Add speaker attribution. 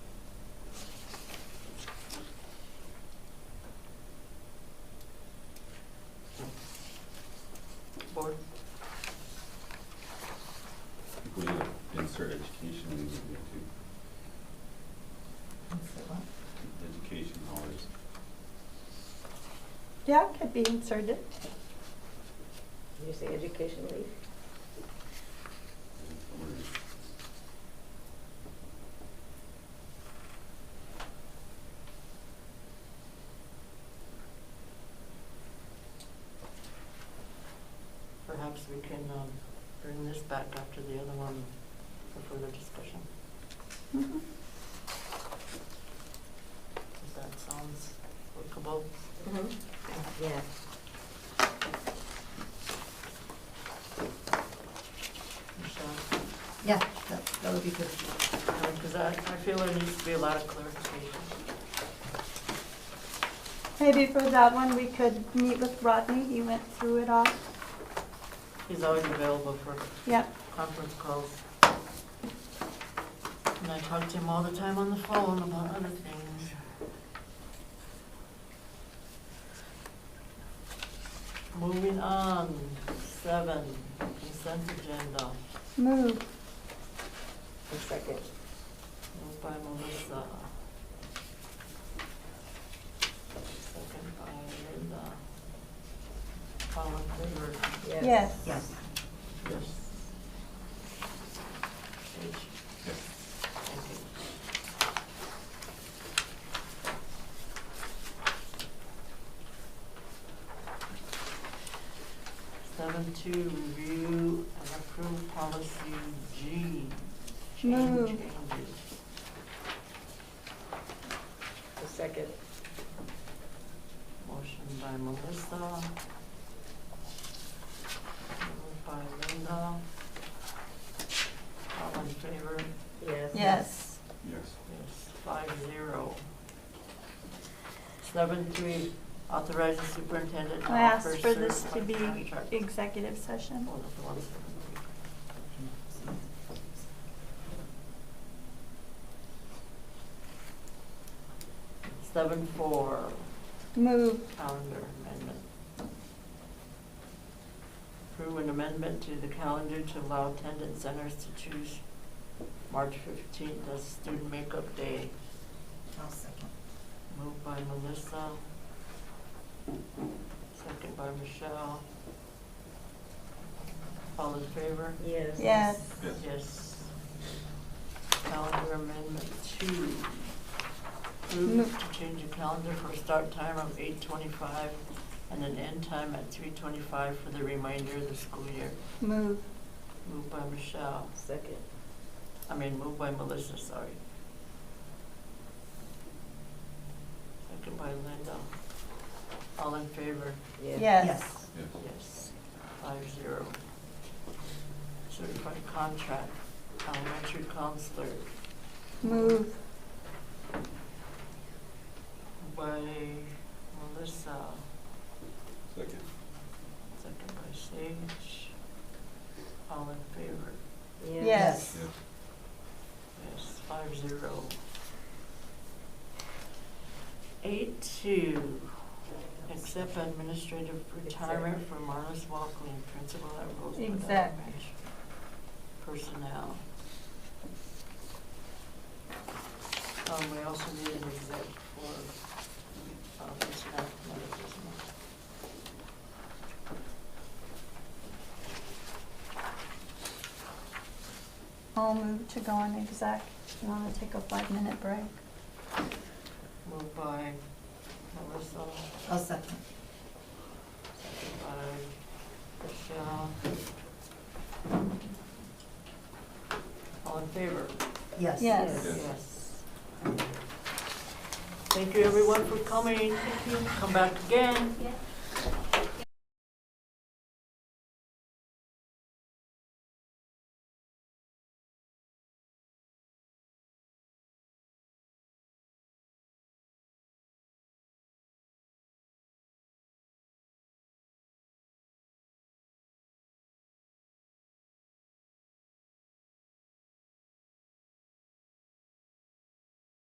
Speaker 1: education hours.
Speaker 2: Yeah, it could be inserted.
Speaker 3: Did you say education leave?
Speaker 4: Perhaps we can um, bring this back after the other one for further discussion.
Speaker 2: Mhm.
Speaker 4: If that sounds workable.
Speaker 3: Yeah.
Speaker 4: Michelle?
Speaker 5: Yeah, that, that would be good.
Speaker 4: Because I, I feel there needs to be a lot of clarification.
Speaker 2: Maybe for that one, we could meet with Rodney, he went through it all.
Speaker 4: He's always available for
Speaker 2: Yep,
Speaker 4: conference calls. And I talk to him all the time on the phone about other things. Moving on, seven, consent agenda,
Speaker 2: move.
Speaker 3: A second.
Speaker 4: moved by Melissa. Second by Linda. All in favor?
Speaker 2: Yes.
Speaker 4: Yes.
Speaker 5: Yes.
Speaker 4: Page? Okay. Seven two, review and approve policy G. Change
Speaker 2: Move.
Speaker 4: changes.
Speaker 3: A second.
Speaker 4: Motion by Melissa. Moved by Linda. All in favor?
Speaker 3: Yes.
Speaker 2: Yes.
Speaker 1: Yes.
Speaker 4: Yes, five zero. Seven three, authorize the superintendent to offer
Speaker 2: I asked for
Speaker 4: certified
Speaker 2: this to be
Speaker 4: contract.
Speaker 2: executive session.
Speaker 4: Oh, that's the one. Seven four,
Speaker 2: Move.
Speaker 4: calendar amendment. Approve an amendment to the calendar to allow attendance centers to choose March fifteenth as student makeup day.
Speaker 5: I'll second.
Speaker 4: Moved by Melissa. Second by Michelle. All in favor?
Speaker 3: Yes.
Speaker 2: Yes.
Speaker 1: Yes.
Speaker 4: Yes. Calendar amendment two.
Speaker 2: Move.
Speaker 4: Move to change the calendar for start time of eight twenty-five and an end time at three twenty-five for the remainder of the school year.
Speaker 2: Move.
Speaker 4: Moved by Michelle,
Speaker 3: Second.
Speaker 4: I mean, moved by Melissa, sorry. Second by Linda. All in favor?
Speaker 2: Yes.
Speaker 1: Yes.
Speaker 4: Yes, five zero. Certified contract, elementary counselor
Speaker 2: Move.
Speaker 4: by Melissa,
Speaker 1: Second.
Speaker 4: second by Sage. All in favor?
Speaker 2: Yes.
Speaker 1: Yes.
Speaker 4: Yes, five zero. Eight two, accept administrative retirement for Marlis Walkley, principal at Rosewood
Speaker 2: Exact.
Speaker 4: Elementary. Personnel. Um, we also need an exec for, uh, personnel matters as well.
Speaker 2: I'll move to go on exec. You want to take a five-minute break?
Speaker 4: Moved by Melissa,
Speaker 5: I'll second.
Speaker 4: by Michelle. All in favor?
Speaker 5: Yes.
Speaker 2: Yes.
Speaker 1: Yes.
Speaker 4: Yes. Thank you, everyone, for coming. Thank you. Come back again.